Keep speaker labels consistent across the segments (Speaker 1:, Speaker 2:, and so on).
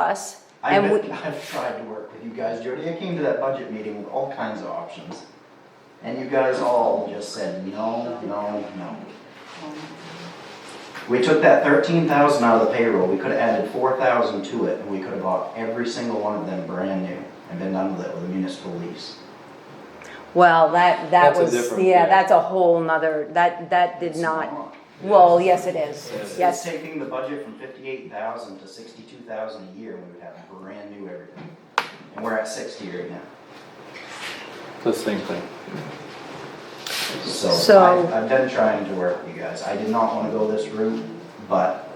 Speaker 1: us,
Speaker 2: I've,
Speaker 1: and
Speaker 2: been-
Speaker 1: we,
Speaker 2: I've tried to work with you guys, Jody, I came to that budget meeting with all kinds of options. And you guys all just said, no, no, no. We took that thirteen thousand out of the payroll, we could have added four thousand to it, and we could have bought every single one of them brand new and been done with it with a municipal lease.
Speaker 1: well, that, that
Speaker 3: That's a
Speaker 1: was,
Speaker 3: different-
Speaker 1: yeah,
Speaker 3: yeah.
Speaker 1: that's a whole nother, that, that did
Speaker 2: It's
Speaker 1: not, well, yes, it is,
Speaker 3: Yes.
Speaker 2: It's
Speaker 1: yes.
Speaker 2: taking the budget from fifty-eight thousand to sixty-two thousand a year, and we would have brand new everything. And we're at sixty right now.
Speaker 3: The same thing.
Speaker 2: So
Speaker 1: So-
Speaker 2: I've, I've been trying to work with you guys. I did not wanna go this route, but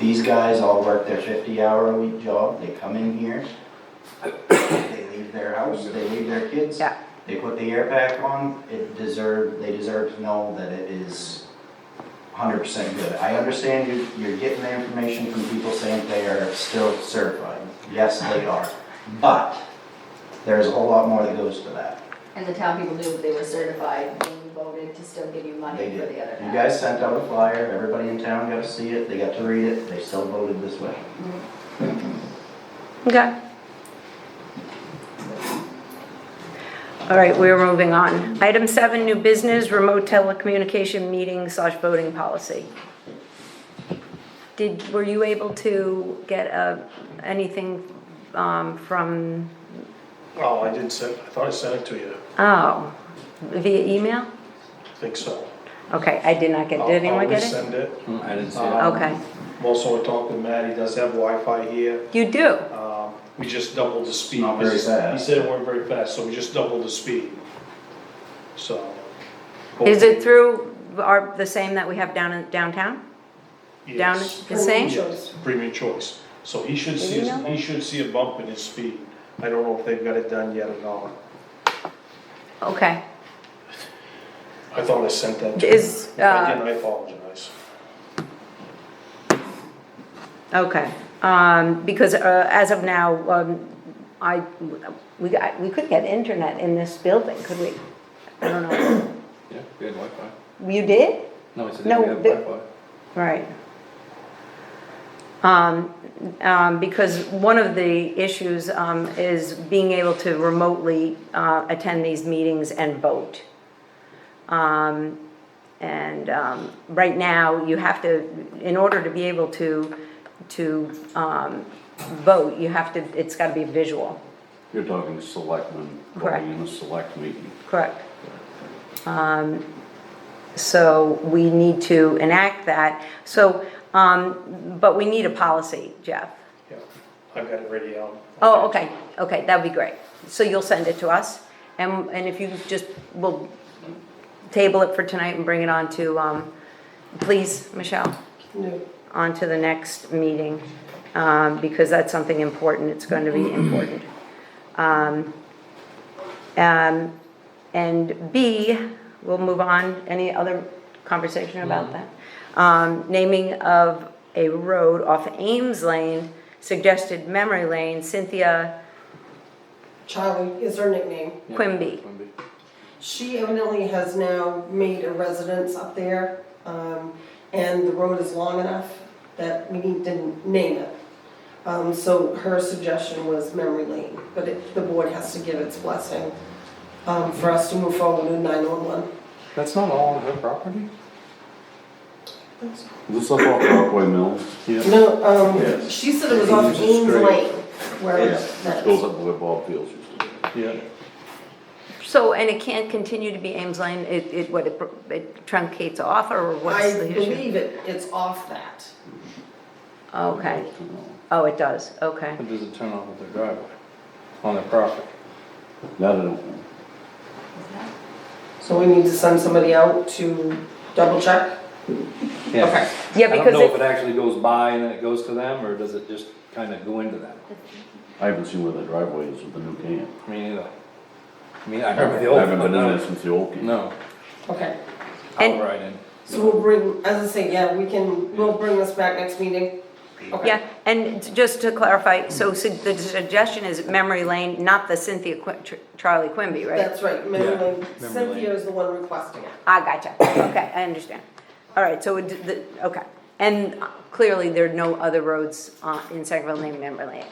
Speaker 2: these guys all work their fifty hour a week job. They come in here. They leave their house, they leave their kids.
Speaker 1: Yeah.
Speaker 2: They put the air pack on. It deserve, they deserve to know that it is hundred percent good. I understand you, you're getting the information from people saying they are still certified. Yes, they are. But there's a whole lot more that goes to that.
Speaker 4: And the town people knew they were certified when you voted to still give you money
Speaker 2: They
Speaker 4: for
Speaker 2: did.
Speaker 4: the other
Speaker 2: You
Speaker 4: half.
Speaker 2: guys sent out a flyer, everybody in town got to see it, they got to read it, they still voted this way.
Speaker 1: Okay. All right, we're moving on. Item seven, new business, remote telecommunication meeting slash voting policy. Did, were you able to get, uh, anything, um, from,
Speaker 5: Oh, I did send, I thought I sent it to you,
Speaker 1: oh, via email?
Speaker 5: I think so.
Speaker 1: Okay, I did not get,
Speaker 5: I'll-
Speaker 1: did anyone get
Speaker 5: I'll
Speaker 1: it?
Speaker 5: resend it.
Speaker 3: Hmm, I didn't see
Speaker 5: Uh,
Speaker 1: Okay,
Speaker 5: I'm Also, I talked with Matt, he does have Wi-Fi here,
Speaker 1: you do?
Speaker 5: um, we just doubled the speed.
Speaker 2: Not very
Speaker 5: He
Speaker 2: fast.
Speaker 5: said it weren't very fast, so we just doubled the speed, so.
Speaker 1: Is it through our, the same that we have down in downtown? Down
Speaker 5: Yes.
Speaker 1: the same?
Speaker 5: Yes, premium choice, so he should see,
Speaker 1: Did you know?
Speaker 5: he should see a bump in his speed, I don't know if they've got it done yet or not.
Speaker 1: Okay,
Speaker 5: I thought I sent that to you.
Speaker 1: is,
Speaker 5: If I
Speaker 1: uh,
Speaker 5: didn't, I apologize.
Speaker 1: okay, um, because, uh, as of now, um, I, we got, we could get internet in this building, could we? I don't know,
Speaker 3: Yeah, we had Wi-Fi.
Speaker 1: you did?
Speaker 3: No, I said
Speaker 1: No,
Speaker 3: we had
Speaker 1: the-
Speaker 3: Wi-Fi.
Speaker 1: Right. Um, um, because one of the issues, um, is being able to remotely, uh, attend these meetings and vote. Um, and, um, right now, you have to, in order to be able to, to, um, vote, you have to, it's gotta be visual,
Speaker 6: You're talking selectmen,
Speaker 1: Correct.
Speaker 6: voting in a select meeting.
Speaker 1: correct? Um, so we need to enact that, so, um, but we need a policy, Jeff.
Speaker 5: Yeah, I've got it ready out.
Speaker 1: Oh, okay, okay, that'd be great. So you'll send it to us, and, and if you just, we'll table it for tonight and bring it on to, um, please, Michelle? On to the next meeting, um, because that's something important, it's going to be important. Um, um, and B, we'll move on, any other conversation about
Speaker 7: Mm-hmm.
Speaker 1: that? Um, naming of a road off Ames Lane, suggested memory lane, Cynthia
Speaker 7: Charlie is her nickname.
Speaker 3: Yeah,
Speaker 1: Quimby.
Speaker 3: Quimby.
Speaker 7: She evidently has now made a residence up there, um, and the road is long enough that we need to name it. Um, so her suggestion was memory lane, but it, the board has to give its blessing, um, for us to move forward with nine-one-one.
Speaker 3: That's not all on her property?
Speaker 6: This up off Rockaway Mills?
Speaker 3: Yeah.
Speaker 7: No, um,
Speaker 6: Yes.
Speaker 7: she said it was off
Speaker 3: Ames is
Speaker 7: Ames
Speaker 3: straight.
Speaker 7: Lane, where
Speaker 6: This
Speaker 7: that
Speaker 6: goes
Speaker 7: is.
Speaker 6: up where Bob Fields used to be.
Speaker 3: Yeah.
Speaker 1: So, and it can't continue to be Ames Lane, it, it, what, it br- it truncates off, or
Speaker 7: I
Speaker 1: what's the issue?
Speaker 7: believe it, it's off that.
Speaker 1: Okay, oh, it does, okay.
Speaker 3: But does it turn off at their driveway? On their property?
Speaker 6: That I don't know.
Speaker 7: So we need to send somebody out to double check?
Speaker 3: Yeah.
Speaker 7: Okay.
Speaker 1: Yeah,
Speaker 3: I don't
Speaker 1: because
Speaker 3: know if it
Speaker 1: it,
Speaker 3: actually goes by and then it goes to them, or does it just kinda go into them?
Speaker 6: I haven't seen where the driveway is with the new camp.
Speaker 3: Me neither. I mean, I remember the
Speaker 6: I
Speaker 3: old.
Speaker 6: haven't
Speaker 3: one,
Speaker 6: been in
Speaker 3: no.
Speaker 6: there since the old camp.
Speaker 3: No,
Speaker 7: Okay.
Speaker 1: And-
Speaker 3: I'll ride in.
Speaker 7: So we'll bring, as I say, yeah, we can, we'll bring this back next meeting. Okay.
Speaker 1: yeah, and just to clarify, so su- the suggestion is memory lane, not the Cynthia Qui- Tr- Charlie Quimby, right?
Speaker 7: That's right,
Speaker 3: Yeah,
Speaker 7: memory lane.
Speaker 3: memory lane.
Speaker 1: Ah,
Speaker 7: Cynthia is the one requesting it.
Speaker 1: I gotcha, okay, I understand. All right, so it, d- the, okay, And clearly, there are no other roads uh, in Sangerville named Amber Lane.